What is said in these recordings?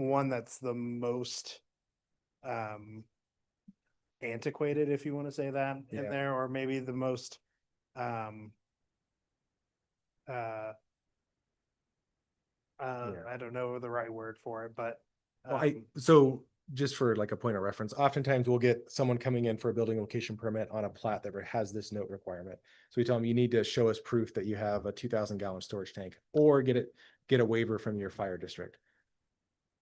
one that's the most um antiquated, if you want to say that in Yeah. there, or maybe the most um uh uh, Yeah. I don't know the right word for it, but Well, I, um, so just for like a point of reference, oftentimes we'll get someone coming in for a building location permit on a plat that has this note requirement. So we tell them, you need to show us proof that you have a two thousand gallon storage tank or get it, get a waiver from your fire district.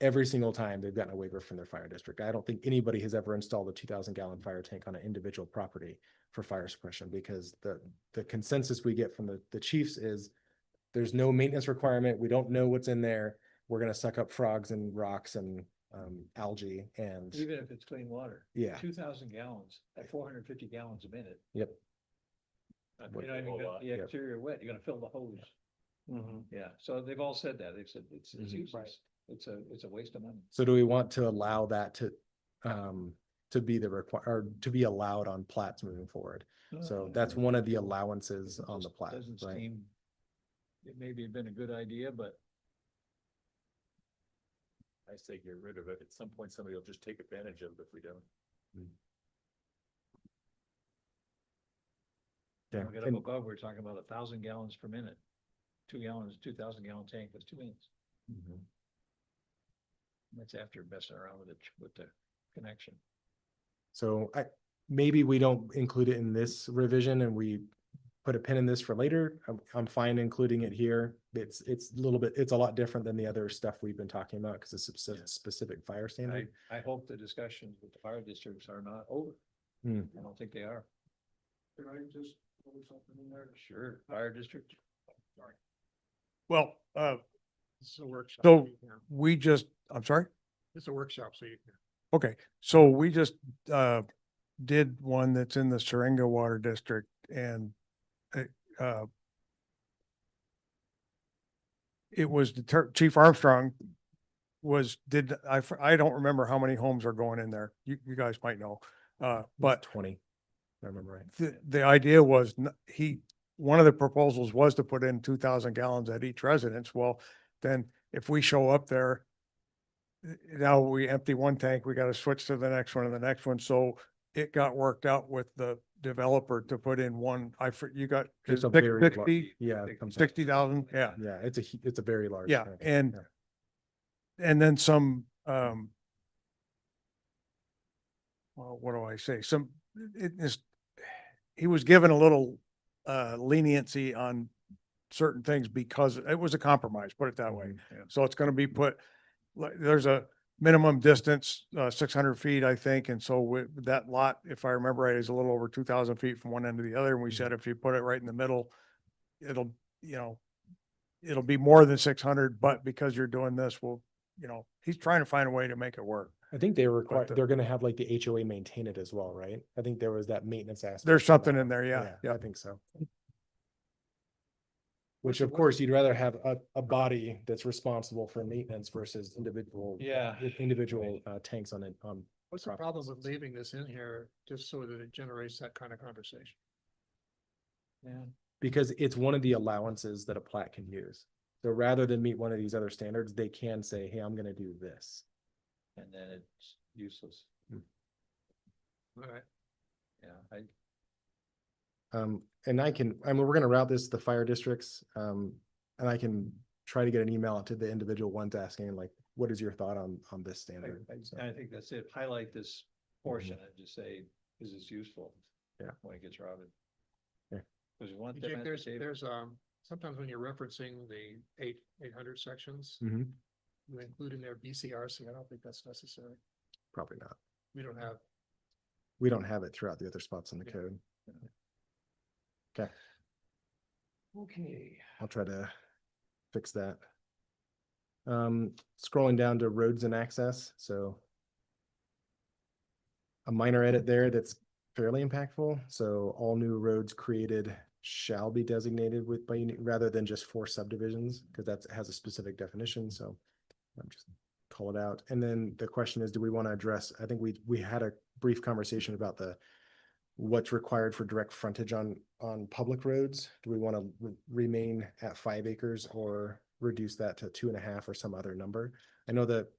Every single time they've gotten a waiver from their fire district. I don't think anybody has ever installed a two thousand gallon fire tank on an individual property for fire suppression because the, the consensus we get from the, the chiefs is there's no maintenance requirement. We don't know what's in there we're gonna suck up frogs and rocks and um algae and Even if it's clean water, yeah, two thousand gallons at four hundred and fifty gallons a minute. Yep. I mean, Wet You're not even whole gonna- lot, the yep. exterior wet, you're gonna fill the hose. mhm. Yeah, so they've all said that. They've said it's, it's Mhm. Right. useless. It's a, it's a waste of money. so do we want to allow that to um to be the require or to be allowed on plats moving forward? So that's one of the allowances on the plat, Uh, Doesn't right? seem, it maybe have been a good idea, but I say get rid of it. At some point, somebody will just take advantage of it if we don't. Yeah, we're gonna and- look over, we're talking about a thousand gallons per minute. Two gallons, two thousand gallon tank, that's two minutes. Mm-hmm. That's after messing around with it, with the connection. So I, maybe we don't include it in this revision and we put a pin in this for later. I'm, I'm fine including it here. It's, it's a little bit, it's a lot different than the other stuff we've been talking about because it's a Yeah. spec- specific fire I, standard. I hope the discussions with the fire districts are not over. Hmm. I don't think they are. Can I just put something in there? Sure, fire district. Well, uh, It's a workshop. So- you know. we just, I'm sorry? It's a workshop, so you can. Okay, so we just, uh, did one that's in the Seringa Water District and, it, uh, it was deter, Chief Armstrong was, did, I, f- I don't remember how many homes are going in there. You, you guys might know. Uh, but Twenty, if I remember right. the, the idea was n- he, one of the proposals was to put in two thousand gallons at each residence. Well, then if we show up there, eh, now we empty one tank, we gotta switch to the next one and the next one. So it got worked out with the developer to put in one, I, for- you got It's is a six- very lar- sixty, Yeah. it comes out. sixty thousand, yeah. Yeah, it's a, hu- it's a very large. Yeah, tank. and, Yeah. and then some, um, well, what do I say? Some, it is, he was given a little, uh, leniency on certain things because it was a compromise, put it that way. So it's gonna be put, like, there's a minimum distance, uh, six hundred feet, I think, and so with that lot, if I remember right, is a little over two thousand feet from one end to the other, and we said if you put it right in the middle, it'll, you know, it'll be more than six hundred, but because you're doing this, well, you know, he's trying to find a way to make it work. I think they require, the- they're gonna have like the HOA maintain it as well, right? I think there was that maintenance aspect. There's to something that. in there, yeah, yeah. I think so. Which of course, you'd rather have a, a body that's responsible for maintenance versus individual. Yeah. i- Individual, uh, tanks on it, um, What's the problem with leaving this in here just so that it generates that kind of conversation? Yeah. because it's one of the allowances that a plat can use. So rather than meet one of these other standards, they can say, hey, I'm gonna do this. And then it's useless. Hmm. Alright. Yeah, I, Um, and I can, I mean, we're gonna route this to the fire districts, um, and I can try to get an email out to the individual ones asking like, what is your thought on, on this standard? I- So, Mm-hmm. I, I think that's it. Highlight this portion and just say, is this useful? Yeah. When it gets routed. Yeah. Cause you want Hey, them Jake, at there's, the table. there's, um, sometimes when you're referencing the eight, eight hundred sections, Mhm, you include in there BCRC. I don't think that's necessary. probably not. We don't have, We don't have it throughout the other spots in the code. Okay. I'll try to fix that. Um, scrolling down to roads and access, so. A minor edit there that's fairly impactful, so all new roads created shall be designated with by, uni- rather than just for subdivisions, because that has a specific definition, so. I'm just call it out, and then the question is, do we want to address, I think we, we had a brief conversation about the. What's required for direct frontage on, on public roads, do we want to remain at five acres or reduce that to two and a half or some other number? I know that